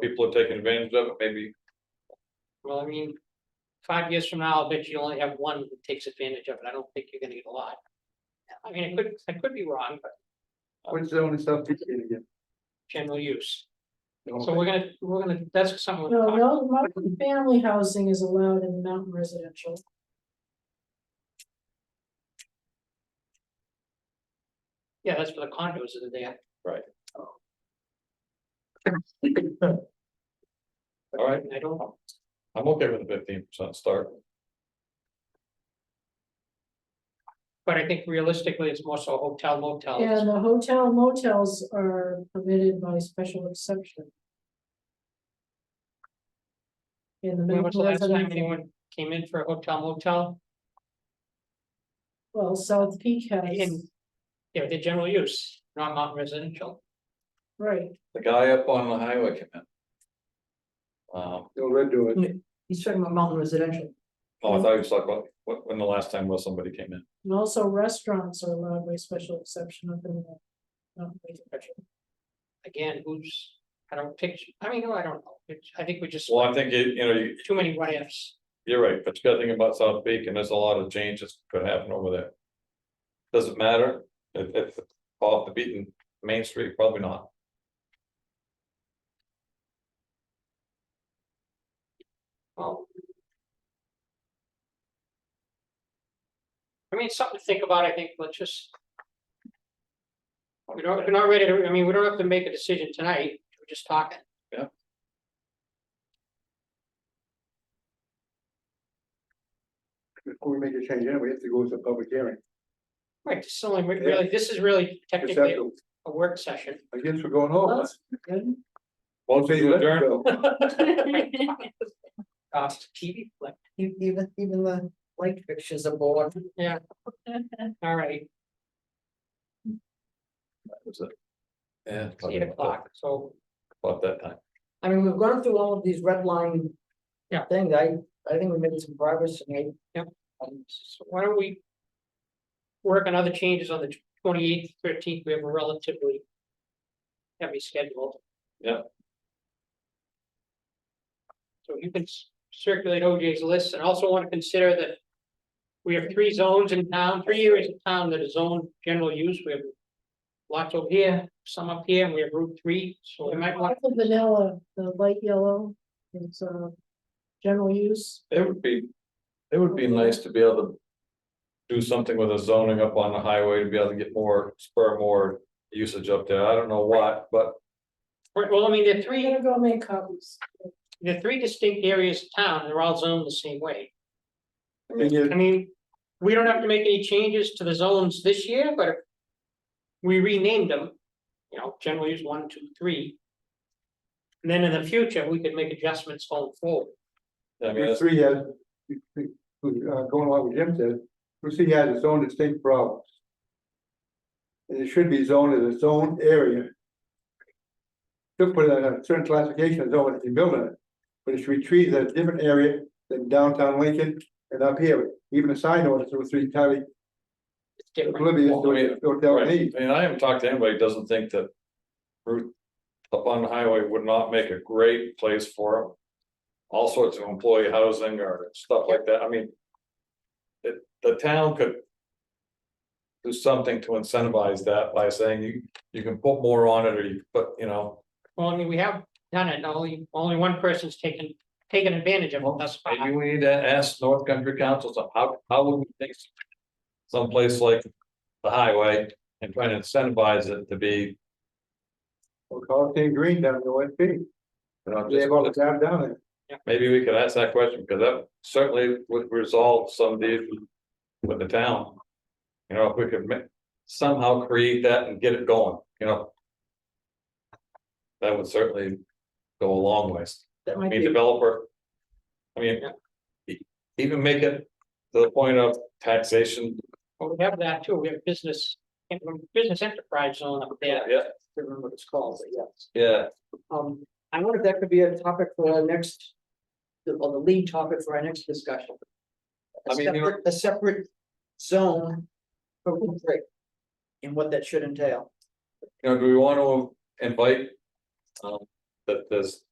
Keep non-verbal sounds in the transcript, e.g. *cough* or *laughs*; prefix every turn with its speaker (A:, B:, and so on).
A: people are taking advantage of it, maybe,
B: Well, I mean, five years from now, I will bet you only have one that takes advantage of it. I don't think you're gonna get a lot. I mean, I could, I could be wrong, but
C: What's the only stuff that's in again?
B: general use. So
C: Okay.
B: we're gonna, we're gonna, that's something. we're
D: No,
B: gonna talk-
D: no, multi-family housing is allowed in mountain residential.
B: Yeah, that's for the condos that are there. *laughs*
A: all right,
B: I don't know.
A: I'm okay with the fifteen percent start.
B: But I think realistically, it's more so hotel motel.
D: And the hotel motels are permitted by special exception. In the
B: When was the
D: mountain
B: last time
D: residential,
B: anyone came in for a hotel motel?
D: well, South Peak has,
B: In- Yeah, the general use, not mountain residential.
D: right,
A: The guy up on the highway came in. Um,
C: They'll redo it.
E: He's talking about mountain residential.
A: oh, I thought you was talking about, when, when the last time was somebody came in,
D: and also restaurants are allowed by special exception up in the. mountain residential.
B: Again, who's, I don't picture, I mean, no, I don't know. It's- I think we just,
A: well, I think, you, you know, you,
B: too many what ifs.
A: You're right, but you gotta think about South Peak and there's a lot of changes could happen over there. Does it matter? If if off the beaten Main Street, probably not.
B: Well. I mean, it's something to think about, I think, let's just. We don't, we're not ready to, I mean, we don't have to make a decision tonight, we're just talking.
A: Yeah.
C: Before we make a change, anyway, we have to go to a public hearing.
B: Right, this is only re- really, this is really
C: Just
B: technically
C: have to-
B: a work session.
C: I guess we're going
E: Oh,
C: home.
D: That's good.
A: Motion to adjourn,
B: Uh, TV, like,
E: E- Even, even the light fixtures are bored.
B: all right,
A: That was it. Yeah.
B: it's eight o'clock, so,
A: About that time.
E: I mean, we've gone through all of these red line.
B: Yeah.
E: Things, I, I think we made some progress tonight.
B: Yep.
E: Um,
B: so why don't we? Work on other changes on the twenty eighth, thirteenth, we have a relatively. Heavy schedule.
A: Yeah.
B: So you can s- circulate OJ's list and also want to consider that. We have three zones in town, three areas in town that are zone general use, we have. Lots over here, some up here, and we have Route three, so we might want,
D: Apple vanilla, the light yellow, is uh, general use.
A: It would be, it would be nice to be able to. Do something with the zoning up on the highway to be able to get more, spur more usage up there. I don't know what, but
B: well, I mean, there are
D: I'm
B: three,
D: gonna go make copies.
B: there are three distinct areas of town, and they're all zoned the same way.
C: Thing is,
B: I mean, we don't have to make any changes to the zones this year, but. if We renamed them, you know, generally use one, two, three. And then in the future, we could make adjustments going forward.
A: I mean,
C: Route
A: it's-
C: three has, uh, going along with Jim said, Route three has its own distinct problems. And it should be zoned as its own area. Should put a certain classification of zone if you build in it, but it should be treated as a different area than downtown Lincoln and up here, even a sign ordinance Route three entirely
B: It's different.
C: oblivious
A: Well, I mean,
C: to hotel
A: Right,
C: needs.
A: and I haven't talked to anybody who doesn't think that. Route up on the highway would not make a great place for them. All sorts of employee housing or stuff like that, I mean. It, the town could. Do something to incentivize that by saying you, you can put more on it or you, but you know,
B: Well, I mean, we have done it. Only, only one person's taken, taken advantage of it thus far.
A: maybe we need to ask North Country Council, so how, how would we think? Someplace like the highway and try to incentivize it to be,
C: We'll call it St. Green down to West Beach.
A: you know,
C: They
A: just.
C: have all the time down there.
A: Maybe we could ask that question, because that certainly would resolve some of the issues with the town. You know, if we could ma- somehow create that and get it going, you know. That would certainly go a long ways,
E: That
A: I
E: might
A: mean,
E: be,
A: developer. I mean, e- even make it to the point of taxation,
B: Well, we have that too. We have business, business enterprise zone up there.
A: yeah,
E: I remember what it's called, but yes.
A: yeah,
E: Um, I wonder if that could be a topic for our next, the, or the lead topic for our next discussion. A
A: I mean, you know-
E: separate, a separate zone for Route three. And what that should entail.
A: you know, do we want to invite? Um, that there's